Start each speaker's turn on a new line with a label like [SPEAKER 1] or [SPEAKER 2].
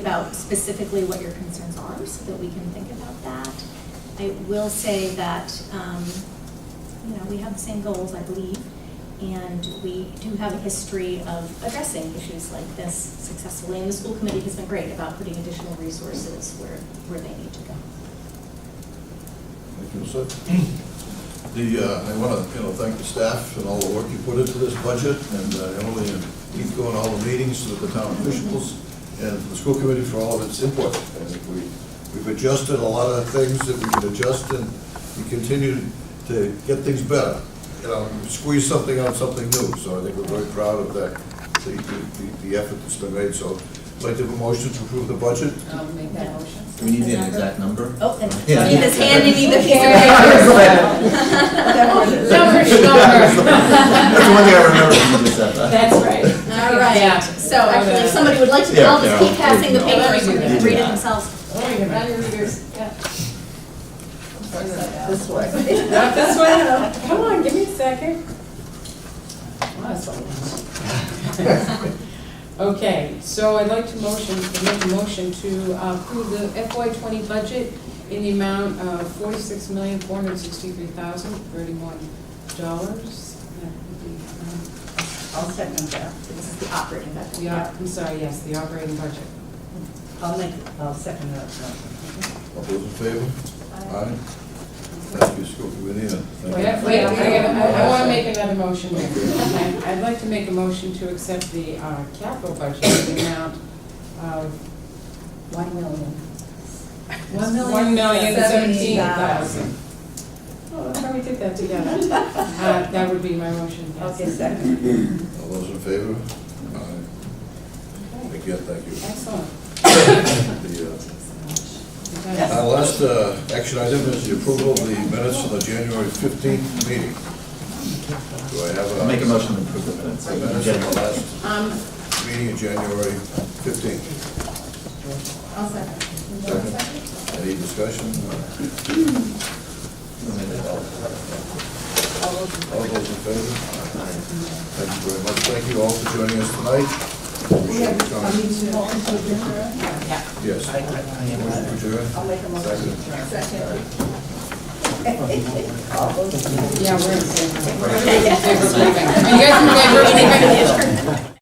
[SPEAKER 1] about specifically what your concerns are so that we can think about that. I will say that, um, you know, we have the same goals, I believe, and we do have a history of addressing issues like this successfully. And the school committee has been great about putting additional resources where, where they need to go.
[SPEAKER 2] Thank you, sir. The, uh, I want to, you know, thank the staff and all the work you put into this budget, and uh, Emily and keep going all the meetings with the town officials, and the school committee for all of its input. And we, we've adjusted a lot of things that we could adjust, and we continue to get things better. You know, squeeze something out, something new, so I think we're very proud of that, the, the- the effort that's been made, so. I'd like to have a motion to approve the budget.
[SPEAKER 3] I'll make that motion.
[SPEAKER 4] Do we need an exact number?
[SPEAKER 1] Oh, and
[SPEAKER 4] Yeah.
[SPEAKER 1] he is handing me the piece of paper.
[SPEAKER 3] Number,
[SPEAKER 4] That's the one thing I remember from just said that.
[SPEAKER 3] That's right.
[SPEAKER 1] All right, so actually, if somebody would like to,
[SPEAKER 4] Yeah,
[SPEAKER 1] I'll just keep
[SPEAKER 4] yeah.
[SPEAKER 1] passing the
[SPEAKER 4] Yeah.
[SPEAKER 1] paper, so they can
[SPEAKER 4] Yeah.
[SPEAKER 1] read it themselves.
[SPEAKER 3] Run your readers, yeah.
[SPEAKER 5] This way.
[SPEAKER 3] Not this way, come on, give me a second. Wow, that's a lot. Okay, so I'd like to motion, to make a motion to uh, approve the FY twenty budget in the amount of forty-six million, four hundred sixty-three thousand, thirty-one dollars. Uh,
[SPEAKER 5] I'll second that.
[SPEAKER 1] This is the operating budget.
[SPEAKER 3] Yeah, uh, I'm sorry, yes, the operating budget.
[SPEAKER 5] I'll make, I'll second that motion.
[SPEAKER 2] All those in favor? Aye. Thank you, school committee, and thank you.
[SPEAKER 3] Wait, wait, wait, I, I wanna make another motion here. Okay, I'd like to make a motion to accept the, uh, capital budget in the amount of
[SPEAKER 5] One million.
[SPEAKER 3] one million seventeen thousand. Oh, that's how we did that together. Uh, that would be my motion, yes.
[SPEAKER 5] Okay, second.
[SPEAKER 2] All those in favor? Aye.
[SPEAKER 3] Okay,
[SPEAKER 2] Again, thank you.
[SPEAKER 3] Excellent.
[SPEAKER 2] The, uh,
[SPEAKER 3] Okay.
[SPEAKER 2] Our last uh, action item is the approval of the minutes of the January fifteenth meeting. Do I have a?
[SPEAKER 4] I'll make a motion to approve the minutes.
[SPEAKER 2] The Minutes of the last
[SPEAKER 3] Um,
[SPEAKER 2] meeting of January fifteenth.
[SPEAKER 5] I'll second.
[SPEAKER 2] Any discussion? All those in favor? Thank you very much. Thank you all for joining us tonight.
[SPEAKER 5] We have, I need to motion to adjourn.
[SPEAKER 2] Yes.
[SPEAKER 5] I'll
[SPEAKER 2] Adjourn.
[SPEAKER 5] make a motion to adjourn. Second. All those in favor?
[SPEAKER 3] yeah, we're in favor. We're in favor of leaving. Are you guys in favor of leaving?